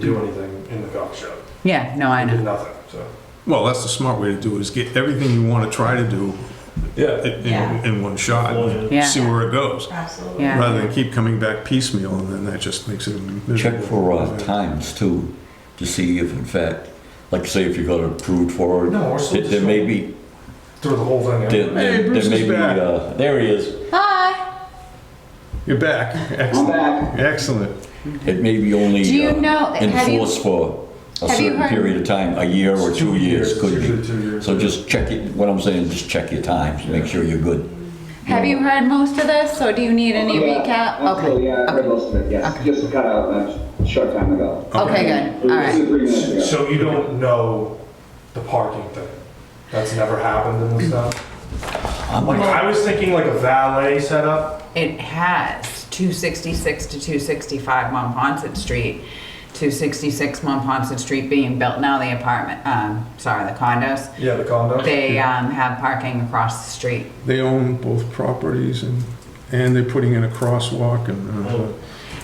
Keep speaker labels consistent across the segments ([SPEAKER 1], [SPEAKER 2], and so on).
[SPEAKER 1] do anything in the coffee shop.
[SPEAKER 2] Yeah, no, I
[SPEAKER 1] We did
[SPEAKER 2] know.
[SPEAKER 1] nothing, so.
[SPEAKER 3] Well, that's the smart way to do it, is get everything you want to try to do
[SPEAKER 1] Yeah.
[SPEAKER 3] in, in,
[SPEAKER 4] Yeah.
[SPEAKER 3] in one shot. and
[SPEAKER 2] Yeah.
[SPEAKER 3] See where it goes,
[SPEAKER 4] Absolutely.
[SPEAKER 2] Yeah.
[SPEAKER 3] rather than keep coming back piecemeal, and then that just makes it miserable.
[SPEAKER 5] Check for uh, times too, to see if in fact, like say if you got approved for it.
[SPEAKER 1] No, we're still
[SPEAKER 5] there- There may be,
[SPEAKER 1] Throw the whole thing out.
[SPEAKER 5] there
[SPEAKER 3] Hey,
[SPEAKER 5] there-
[SPEAKER 3] Bruce
[SPEAKER 5] there may
[SPEAKER 3] is
[SPEAKER 5] be,
[SPEAKER 3] back.
[SPEAKER 5] uh, there he is.
[SPEAKER 4] Hi.
[SPEAKER 3] You're back. Excellent. Excellent.
[SPEAKER 5] It may be only
[SPEAKER 4] Do you
[SPEAKER 5] uh,
[SPEAKER 4] know- have you-
[SPEAKER 5] enforced for a
[SPEAKER 4] have you
[SPEAKER 5] certain
[SPEAKER 4] heard-
[SPEAKER 5] period of time, a year or two years, could
[SPEAKER 1] Usually
[SPEAKER 5] be.
[SPEAKER 1] two years.
[SPEAKER 5] So just check it, what I'm saying, just check your times, make sure you're good.
[SPEAKER 4] Have you heard most of this, or do you need any
[SPEAKER 6] Yeah,
[SPEAKER 4] recap?
[SPEAKER 6] Absolutely,
[SPEAKER 4] Okay.
[SPEAKER 6] yeah, I heard most of it, yes,
[SPEAKER 4] Okay.
[SPEAKER 6] just got out a short time ago.
[SPEAKER 4] Okay,
[SPEAKER 6] It
[SPEAKER 4] good.
[SPEAKER 6] was
[SPEAKER 4] All right.
[SPEAKER 6] Two, three minutes ago.
[SPEAKER 1] So you don't know the parking thing? That's never happened in this town? Like, I was thinking like a valet setup.
[SPEAKER 2] It has 266 to 265 Monpont Street, 266 Monpont Street being built now, the apartment, um, sorry, the condos.
[SPEAKER 1] Yeah, the condo.
[SPEAKER 2] They, um, have parking across the street.
[SPEAKER 3] They own both properties, and, and they're putting in a crosswalk, and, uh,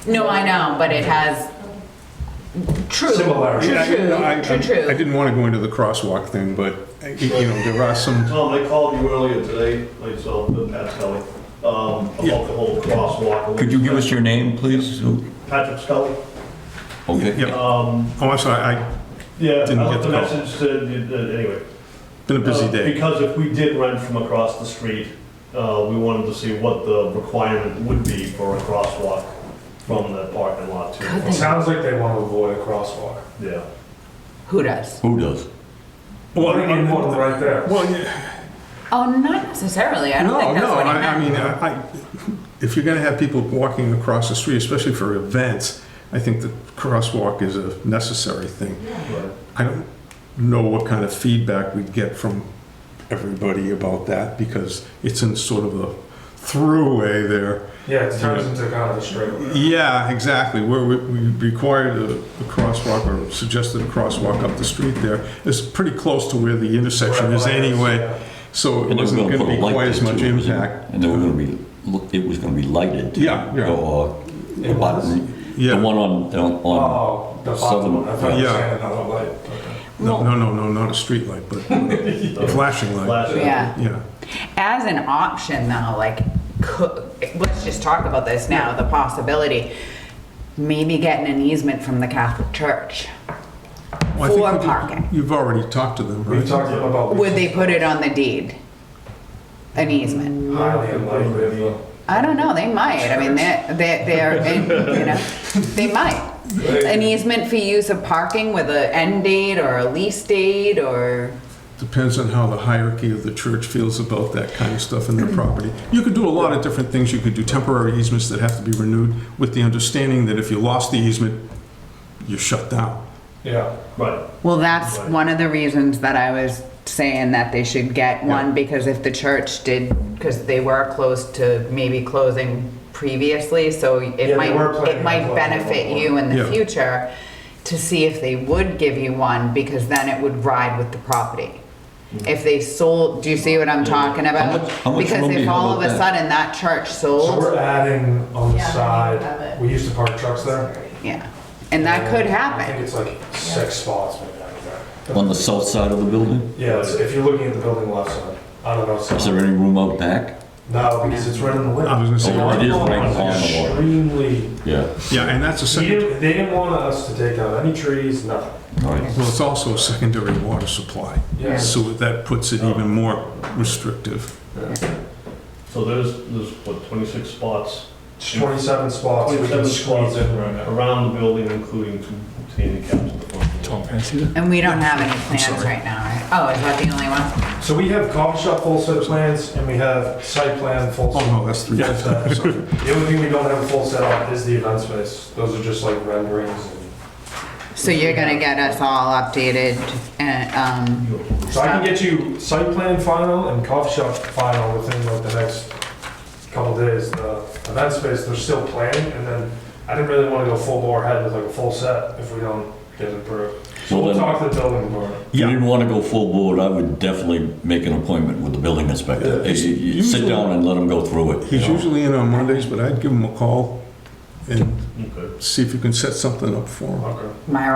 [SPEAKER 2] No, I know, but it has, true.
[SPEAKER 7] Oh.
[SPEAKER 1] Similarity.
[SPEAKER 2] True,
[SPEAKER 3] Yeah, I didn't- no, I-
[SPEAKER 2] true, true,
[SPEAKER 3] I
[SPEAKER 2] true.
[SPEAKER 3] didn't want to go into the crosswalk thing, but, uh, you know, there are some,
[SPEAKER 7] Tom, they called you earlier today, myself and Pat Scully, um, about the whole crosswalk.
[SPEAKER 5] Could you give us your name, please?
[SPEAKER 7] Patrick Scully?
[SPEAKER 5] Okay.
[SPEAKER 3] yeah.
[SPEAKER 7] Um,
[SPEAKER 3] Oh, I'm sorry, I,
[SPEAKER 7] yeah,
[SPEAKER 3] Didn't
[SPEAKER 7] I
[SPEAKER 3] get
[SPEAKER 7] left
[SPEAKER 3] the
[SPEAKER 7] a
[SPEAKER 3] call.
[SPEAKER 7] message that, you- that- anyway.
[SPEAKER 3] been a busy
[SPEAKER 7] Uh,
[SPEAKER 3] day.
[SPEAKER 7] Because if we did rent from across the street, uh, we wanted to see what the requirement would be for a crosswalk from the parking lot to.
[SPEAKER 1] It sounds like they want to avoid a crosswalk.
[SPEAKER 7] Yeah.
[SPEAKER 2] Who does?
[SPEAKER 5] Who does?
[SPEAKER 1] Well, they need one right there.
[SPEAKER 3] uh, Well, yeah.
[SPEAKER 2] Oh, not necessarily. I don't think that's what he
[SPEAKER 3] No, no, I- I
[SPEAKER 2] meant.
[SPEAKER 3] mean, I, I- if you're gonna have people walking across the street, especially for events, I think the crosswalk is a necessary thing. I don't know what kind of feedback we'd get from everybody about that, because it's in sort of a throughway there.
[SPEAKER 1] Yeah, it turns into kind of a straight.
[SPEAKER 3] Yeah, exactly, where we, we required a a crosswalk, or suggested a crosswalk up the street there, it's pretty close to where the intersection is
[SPEAKER 1] Red lights,
[SPEAKER 3] anyway,
[SPEAKER 1] yeah.
[SPEAKER 3] so it
[SPEAKER 5] And they were
[SPEAKER 3] wasn't
[SPEAKER 5] gonna
[SPEAKER 3] gonna
[SPEAKER 5] put a
[SPEAKER 3] be
[SPEAKER 5] light
[SPEAKER 3] quite
[SPEAKER 5] there
[SPEAKER 3] as much
[SPEAKER 5] too, wasn't it?
[SPEAKER 3] impact.
[SPEAKER 5] And they were gonna be, look, it was gonna be lighted. too.
[SPEAKER 3] Yeah, yeah.
[SPEAKER 5] Or,
[SPEAKER 1] It was?
[SPEAKER 5] the
[SPEAKER 3] Yeah.
[SPEAKER 5] one on, on- on,
[SPEAKER 1] Oh, the bottom one. I thought you
[SPEAKER 3] Yeah.
[SPEAKER 1] said another light. Okay.
[SPEAKER 3] No, no, no, no, not a street light, but a flashing light.
[SPEAKER 7] Flashing.
[SPEAKER 2] Yeah.
[SPEAKER 3] Yeah,
[SPEAKER 2] As an option though, like, could, let's just talk about this now, the possibility, maybe getting an easement from the Catholic Church.
[SPEAKER 3] Well, I think
[SPEAKER 2] For
[SPEAKER 3] you-
[SPEAKER 2] parking.
[SPEAKER 3] You've already talked to them,
[SPEAKER 1] We
[SPEAKER 3] right?
[SPEAKER 1] talked about.
[SPEAKER 2] Would they put it on the deed? An easement?
[SPEAKER 1] Highly unlikely. though.
[SPEAKER 2] I don't know, they might, I mean, they're, they're, they're in- you know, they might. An easement for use of parking with an end date or a lease date or,
[SPEAKER 3] Depends on how the hierarchy of the church feels about that kind of stuff in their property. You could do a lot of different things. You could do temporary easements that have to be renewed with the understanding that if you lost the easement, you're shut down.
[SPEAKER 1] Yeah.
[SPEAKER 7] Right.
[SPEAKER 2] well, that's one of the reasons that I was saying that they should get one, because if the church did, because they were close to maybe closing previously, so
[SPEAKER 1] they
[SPEAKER 2] it might,
[SPEAKER 1] were planning
[SPEAKER 2] it
[SPEAKER 1] on
[SPEAKER 2] might
[SPEAKER 1] closing at one
[SPEAKER 2] benefit you in the
[SPEAKER 3] Yeah.
[SPEAKER 2] future to see if they would give you one, because then it would ride with the property.
[SPEAKER 1] Mm-hmm.
[SPEAKER 2] If they sold, do you see what I'm talking
[SPEAKER 5] How
[SPEAKER 2] about?
[SPEAKER 5] much- how much room
[SPEAKER 2] Because
[SPEAKER 5] do
[SPEAKER 2] if
[SPEAKER 5] you have
[SPEAKER 2] all of
[SPEAKER 5] up
[SPEAKER 2] a
[SPEAKER 5] there?
[SPEAKER 2] sudden that church
[SPEAKER 1] So
[SPEAKER 2] sold,
[SPEAKER 1] we're adding on the
[SPEAKER 4] Yeah,
[SPEAKER 1] side,
[SPEAKER 4] but-
[SPEAKER 1] we used to park trucks there.
[SPEAKER 2] yeah, and that could
[SPEAKER 1] I think
[SPEAKER 2] happen.
[SPEAKER 1] it's like six spots maybe out of there.
[SPEAKER 5] on the south side of the building?
[SPEAKER 1] Yeah, it's- if you're looking at the building left side, I don't know. so-
[SPEAKER 5] Is there any room out back?
[SPEAKER 1] No, because it's right in the way.
[SPEAKER 3] I was gonna say,
[SPEAKER 5] Oh, it is right on the water.
[SPEAKER 1] Extremely,
[SPEAKER 5] Yeah.
[SPEAKER 3] Yeah, and that's a
[SPEAKER 1] he
[SPEAKER 3] second,
[SPEAKER 1] didn't, they didn't want us to take down any trees, nothing.
[SPEAKER 5] All right.
[SPEAKER 3] well, it's also a secondary water supply.
[SPEAKER 1] Yeah.
[SPEAKER 3] So that puts it even more restrictive.
[SPEAKER 7] So there's, there's what, 26 spots?
[SPEAKER 1] It's Twenty-seven spots we can
[SPEAKER 7] 27
[SPEAKER 1] squeeze
[SPEAKER 7] spots
[SPEAKER 1] in right now.
[SPEAKER 7] around the building, including two handicaps at the front.
[SPEAKER 2] And we don't have any plans
[SPEAKER 3] sorry.
[SPEAKER 2] right now, right? Oh, is that the only one?
[SPEAKER 1] So we have coffee shop full set of plans and we have site plan full.
[SPEAKER 3] Oh,
[SPEAKER 5] Uh-huh.
[SPEAKER 1] set.
[SPEAKER 3] no, that's three.
[SPEAKER 1] Yeah, so- The only thing we don't have a full set on is the event space. Those are just like renderings and,
[SPEAKER 2] So you're gonna get us all updated and, um,
[SPEAKER 1] so I can get you site plan final and coffee shop final within like the next couple days. The event space, they're still planning and then I didn't really want to go full bore ahead with like a full set if we don't get it approved. So
[SPEAKER 5] Well,
[SPEAKER 1] we'll
[SPEAKER 5] then-
[SPEAKER 1] talk to the building department.
[SPEAKER 5] If you didn't want to go full board, I would definitely make an appointment with the building inspector.
[SPEAKER 3] Yeah, it's
[SPEAKER 5] You- you- you Sit
[SPEAKER 3] usually-
[SPEAKER 5] down and let him go through it. you
[SPEAKER 3] He's
[SPEAKER 5] know.
[SPEAKER 3] usually in on Mondays, but I'd give him a call and
[SPEAKER 7] Okay.
[SPEAKER 3] see if you can set something up for them.
[SPEAKER 1] Okay.
[SPEAKER 2] My